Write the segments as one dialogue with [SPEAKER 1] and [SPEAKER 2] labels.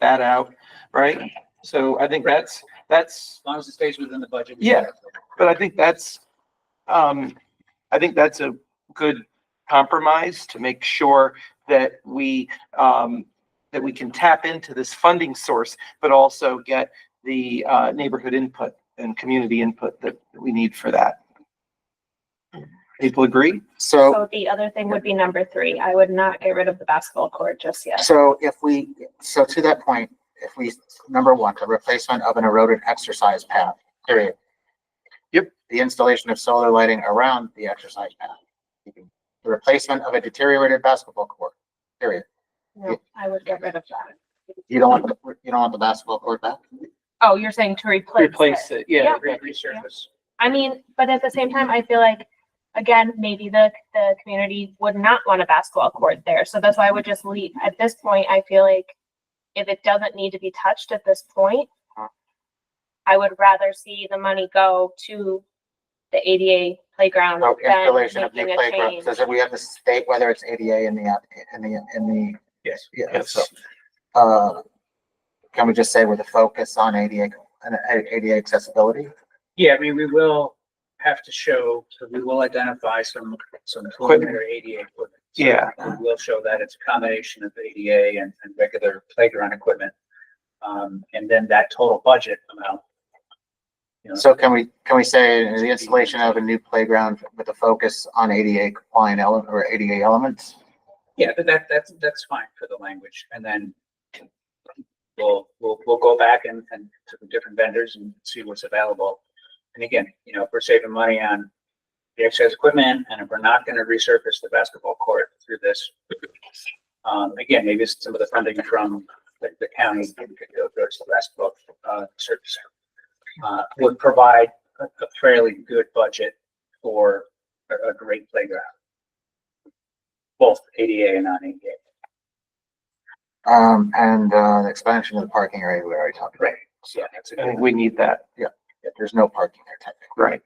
[SPEAKER 1] that out, right? So I think that's, that's,
[SPEAKER 2] As long as it stays within the budget.
[SPEAKER 1] Yeah. but I think that's, um, I think that's a good compromise to make sure that we, um, that we can tap into this funding source, but also get the, uh, neighborhood input and community input that we need for that. People agree?
[SPEAKER 3] So,
[SPEAKER 4] So the other thing would be number three. I would not get rid of the basketball court just yet.
[SPEAKER 3] so if we, so to that point, if we, number one, the replacement of an eroded exercise path, period.
[SPEAKER 1] Yep.
[SPEAKER 3] The installation of solar lighting around the exercise path. The replacement of a deteriorated basketball court, period.
[SPEAKER 4] No, I would get rid of that.
[SPEAKER 3] You don't want, the you don't want the basketball court back?
[SPEAKER 4] Oh, you're saying to replace
[SPEAKER 1] Replace
[SPEAKER 4] it.
[SPEAKER 1] it, yeah.
[SPEAKER 2] Resurface.
[SPEAKER 4] I mean, but at the same time, I feel like, again, maybe the, the community would not want a basketball court there. So that's why I would just leave. At this point, I feel like if it doesn't need to be touched at this point, I would rather see the money go to the ADA playground
[SPEAKER 3] No
[SPEAKER 4] than
[SPEAKER 3] Oh, installation of new
[SPEAKER 4] making a
[SPEAKER 3] playgrounds.
[SPEAKER 4] change.
[SPEAKER 3] Does it, we have to state whether it's ADA in the, app- in the, in the,
[SPEAKER 2] Yes.
[SPEAKER 3] yeah, so. Uh, can we just say with a focus on ADA, and ADA accessibility?
[SPEAKER 2] Yeah, I mean, we will have to show, we will identify some, some preliminary ADA equipment. So
[SPEAKER 1] Yeah.
[SPEAKER 2] We will show that it's a combination of ADA and, and regular playground equipment. Um, and then that total budget amount. you know,
[SPEAKER 3] So can we, can we say the installation of a new playground with a focus on ADA compliant element or ADA elements?
[SPEAKER 2] Yeah, but that, that's, that's fine for the language, and then we'll, we'll, we'll go back and, and to the different vendors and see what's available. And again, you know, if we're saving money on the exercise equipment, and if we're not gonna resurface the basketball court through this, um, again, maybe it's some of the funding from the, the county, maybe could go towards the basketball, uh, surface. Uh, would provide a, a fairly good budget for a, a great playground both ADA and non-ADA.
[SPEAKER 3] Um, and, uh, the expansion of the parking area we already talked about.
[SPEAKER 2] Right. Yeah, that's a
[SPEAKER 1] I
[SPEAKER 2] good
[SPEAKER 1] think
[SPEAKER 2] one.
[SPEAKER 1] we need that,
[SPEAKER 3] If there's no parking there technically.
[SPEAKER 1] right?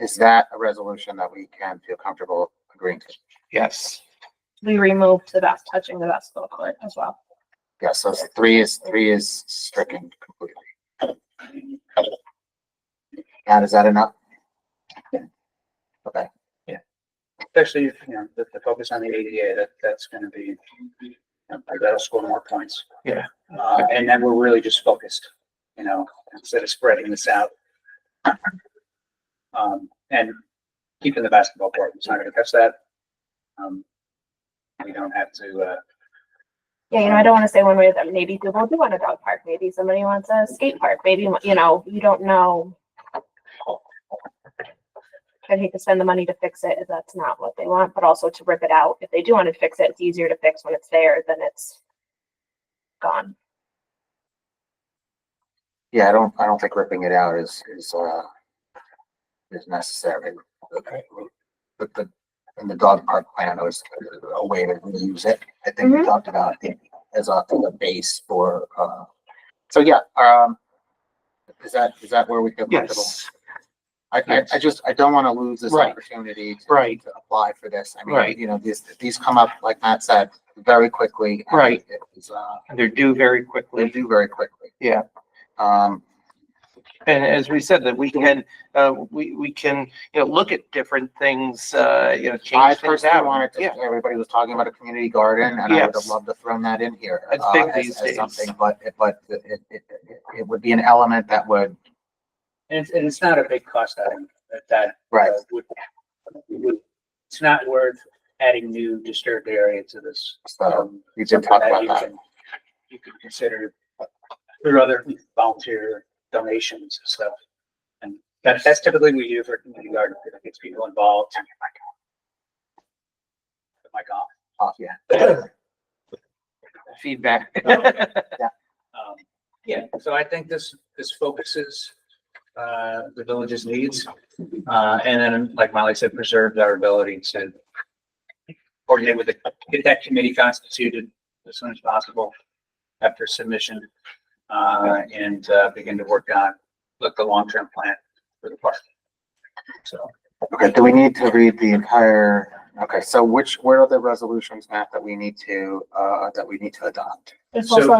[SPEAKER 3] Is that a resolution that we can feel comfortable agreeing to?
[SPEAKER 1] Yes.
[SPEAKER 4] We removed the bas, touching the basketball court as well.
[SPEAKER 3] Yeah, so three is, three is stricken completely. Now, is that enough? Okay,
[SPEAKER 2] Especially, if, you know, the, the focus on the ADA, that, that's gonna be, you know, that'll score more points.
[SPEAKER 1] Yeah.
[SPEAKER 2] Uh, and then we're really just focused, you know, instead of spreading this out. Um, and keeping the basketball court, it's not gonna touch that. Um, we don't have to, uh,
[SPEAKER 4] Yeah, you know, I don't want to say one way or the other. Maybe people do want a dog park. Maybe somebody wants a skate park. Maybe, you know, you don't know. I hate to spend the money to fix it if that's not what they want, but also to rip it out. If they do want to fix it, it's easier to fix when it's there than it's gone.
[SPEAKER 3] yeah, I don't, I don't think ripping it out is, is, uh, is necessary. But the, in the dog park plan, it was a way to reuse it. I think we
[SPEAKER 4] Mhm.
[SPEAKER 3] talked about it as a, as a base for, uh, so yeah, um, is that, is that where we feel comfortable?
[SPEAKER 1] Yes,
[SPEAKER 3] I, I, I just, I don't want to lose this
[SPEAKER 1] Right.
[SPEAKER 3] opportunity to
[SPEAKER 1] right.
[SPEAKER 3] to apply for this. I
[SPEAKER 1] Right.
[SPEAKER 3] mean, you know, these, these come up, like Matt said, very quickly. and
[SPEAKER 1] Right.
[SPEAKER 3] It was, uh,
[SPEAKER 1] They're due very
[SPEAKER 3] they
[SPEAKER 1] quickly.
[SPEAKER 3] do very quickly.
[SPEAKER 1] Yeah.
[SPEAKER 3] Um,
[SPEAKER 1] And as we said, that we can, uh, we, we can, you know, look at different things, uh, you know,
[SPEAKER 3] I
[SPEAKER 1] change things
[SPEAKER 3] personally
[SPEAKER 1] out.
[SPEAKER 3] wanted to,
[SPEAKER 1] Yeah,
[SPEAKER 3] everybody was talking about a community garden and I would have
[SPEAKER 1] Yes.
[SPEAKER 3] loved to thrown that in here.
[SPEAKER 1] It's
[SPEAKER 3] uh,
[SPEAKER 1] big
[SPEAKER 3] as-
[SPEAKER 1] these
[SPEAKER 3] as
[SPEAKER 1] days.
[SPEAKER 3] Something, but, it- but it, it, it- it would be an element that would,
[SPEAKER 2] and it's, and it's not a big cost item that, that
[SPEAKER 3] right,
[SPEAKER 2] uh, would- would- It's not worth adding new disturbed area to this.
[SPEAKER 3] so
[SPEAKER 2] um,
[SPEAKER 3] we did talk
[SPEAKER 2] that
[SPEAKER 3] about
[SPEAKER 2] you
[SPEAKER 3] that.
[SPEAKER 2] can- You could consider through other volunteer donations and stuff. And that, that's typically what we do for community garden, it gets people involved. My God.
[SPEAKER 3] Oh, yeah.
[SPEAKER 1] feedback.
[SPEAKER 2] Um, Yeah, so I think this, this focuses, uh, the village's needs. Uh, and then, like Molly said, preserves our ability to coordinate with the, get that committee constituted as soon as possible after submission. Uh, and, uh, begin to work on, look, the long-term plan for the park. So,
[SPEAKER 3] Okay, do we need to read the entire Okay, so which, where are the resolutions, Matt, that we need to, uh, that we need to adopt?
[SPEAKER 4] It's
[SPEAKER 2] So-
[SPEAKER 4] also